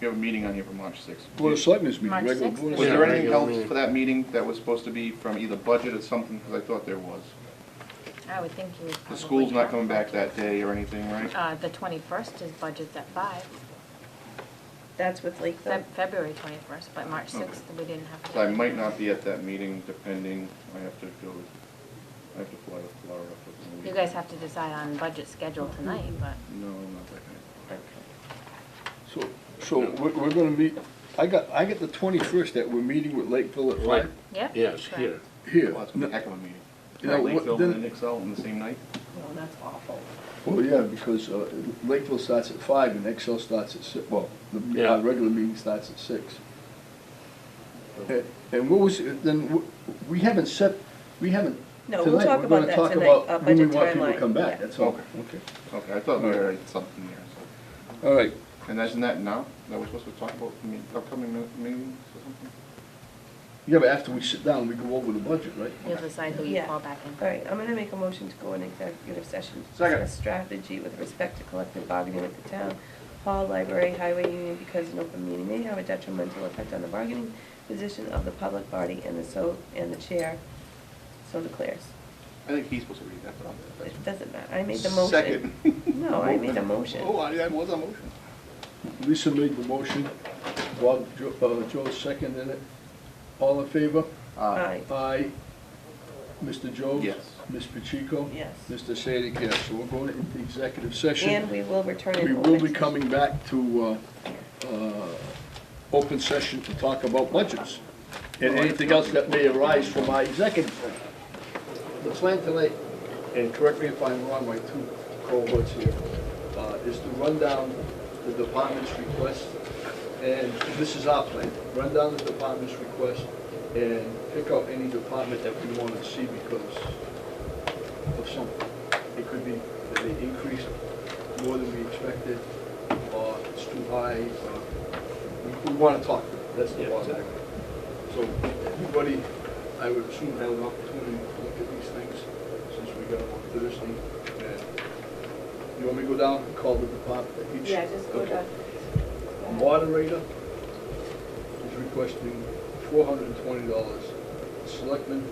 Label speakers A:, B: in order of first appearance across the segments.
A: We have a meeting on here for March sixth.
B: Board of Selectmen's meeting,
C: March
B: regular
C: sixth.
B: Board of
A: Was there
B: Selectmen.
A: anything
D: regular
A: else
D: meeting.
A: for that meeting that was supposed to be from either budget or something, because I thought there was?
C: I would think you would
A: The
C: probably.
A: school's not
C: have
A: coming back
C: budget.
A: that day or anything, right?
C: Uh, the twenty-first is budgeted at five,
E: That's with Lakeville.
C: Feb- February twenty-first, but March
A: Okay.
C: sixth, we didn't have. to
A: So I
C: do
A: might
C: it.
A: not be at that meeting, depending, I have to go, I have to fly to Florida for the meeting.
C: You guys have to decide on budget schedule tonight, but
A: No, not that
B: So, so we're, we're gonna meet, I got, I got the twenty-first that we're meeting with Lakeville at
D: Right.
B: five,
C: yeah.
D: Yes,
C: sure.
D: here.
A: night.
B: here.
A: Well, it's gonna be a heck of a meeting.
B: Now, what-
A: Lakeville
B: then-
A: and Excel on the same night?
E: No, that's awful.
B: Well, yeah, because uh, Lakeville starts at five and Excel starts at six, well, the,
D: Yeah.
B: our regular meeting starts at six. And- And what was, then, w- we haven't set, we haven't,
E: No,
B: tonight,
E: we'll
B: we're
E: talk about
B: gonna
E: that
B: talk
E: tonight, uh,
B: about when we
E: budget
B: want people to
E: timeline,
B: come
E: yeah.
B: back, that's all. Okay.
A: Okay, I thought there was something there, so.
B: All right,
A: And isn't that now, that we're supposed to talk about me- upcoming mi- meetings or something?
B: yeah, but after we sit down, we go over the budget, right?
C: You'll decide who you
E: Yeah.
C: call back in.
E: All right, I'm gonna make a motion to go in executive session. to
A: Second.
E: discuss Strategy with respect to collective bargaining with the town, hall, library, highway union, because an open meeting may have a detrimental effect on the bargaining position of the public body and the so, and the chair, so declares.
A: I think he's supposed to read that, but I'm. that's-
E: It doesn't matter, I made the motion.
A: Second.
E: No, I made a motion.
A: Oh, I, that was a motion.
B: Lisa made the motion, Bob, Jo- uh, Joe seconded it. All in favor?
E: Aye.
B: Aye. Mr. Jones?
A: Yes.
B: Ms. Pacheco?
E: Yes.
B: Mr. Sadik, yes. So we're going into executive session.
E: And we will return it.
B: We will be coming back to, uh, uh, open session to talk about budgets and anything else that may arise from our executive. session. The plan tonight, and correct me if I'm wrong, my two cohorts here, uh, is to run down the department's request, and this is our plan, run down the department's request and pick out any department that we want to see because of something. It could be that they increased more than we expected, or it's too high, or, we, we wanna talk, that's the bottom line. So, everybody, I would assume had an opportunity to look at these things, since we got them on Thursday, and you want me to go down and call the department, each?
F: Yeah, just go
B: Okay.
F: down.
B: A moderator is requesting four hundred and twenty dollars. Selectman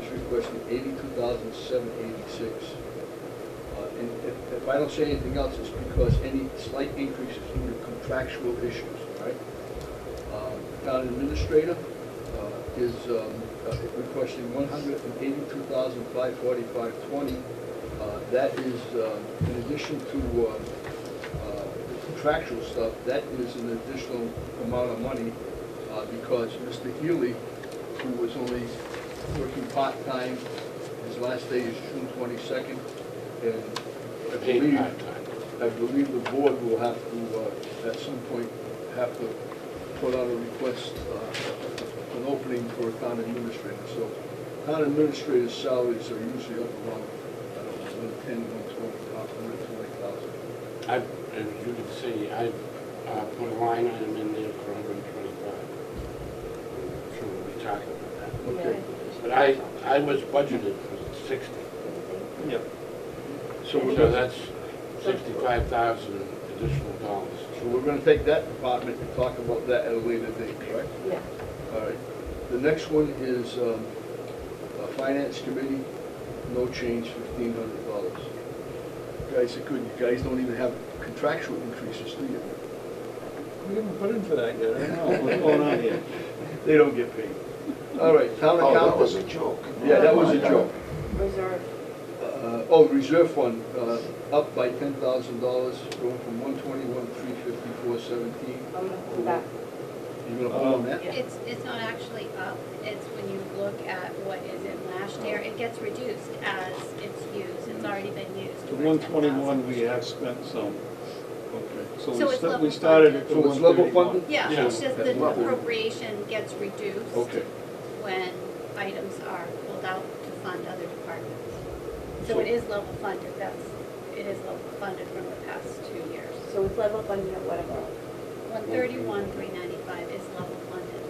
B: is requesting eighty-two thousand, seven eighty-six. Uh, And if, if I don't say anything else, it's because any slight increase is due to contractual issues, all right? Uh, Town administrator uh, is um, uh, requesting one hundred and eighty-two thousand, five forty-five, twenty. Uh, That is, um, in addition to uh, uh, the contractual stuff, that is an additional amount of money uh, because Mr. Healy, who was only working part-time, his last day is June twenty-second, and I
D: Paid
B: believe,
D: part-time.
B: I believe the board will have to, uh, at some point, have to put out a request, uh, an opening for a town administrator. So town administrator's salaries are usually up around, I don't know, one ten, one twenty, about hundred twenty thousand.
D: I, as you can see, I uh, put a line item in there for 125. Sure, we'll be talking about
B: Okay.
D: that. But I, I was budgeted for 60.
A: Yep.
B: So we're
D: So
B: gonna,
D: that's 65,000 additional dollars.
B: so we're gonna take that department and talk about that at a later date, correct?
F: Yeah.
B: All right. The next one is, um, uh, Finance Committee, no change, fifteen hundred dollars. Guys are good, you guys don't even have contractual increases, do you?
G: We haven't put in for that yet, I don't know what's going on here.
B: They don't get paid. All right, town
D: Oh,
B: accountant.
D: that was a joke.
B: Yeah, that was a joke.
F: Reserve.
B: Uh, Oh, reserve fund, uh, up by ten thousand dollars, going from one twenty-one, three fifty-four, seventeen.
F: I'm gonna hold back.
B: You're gonna hold on that?
H: It's, it's not actually up, it's when you look at what is in last year, it gets reduced as it's used, it's already been used.
G: The one twenty-one, we have spent some,
B: Okay.
G: so
H: So
G: we
H: it's
G: sta-
H: level
G: we started at the
B: So
G: one
B: it's level
G: thirty-one.
B: funded?
H: Yeah, it's just the
B: Yeah.
H: appropriation gets reduced
B: Okay.
H: when items are pulled out to fund other departments. So it is level funded, that's, it is level funded from the past two years.
F: So it's level funded at whatever.
H: One thirty-one, three ninety-five is level funded.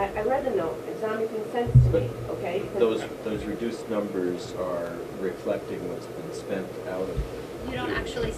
F: I, I read the note, it's not making sense to me, okay? 'Cause
I: Those, those reduced numbers are reflecting what's been spent out of
H: You don't actually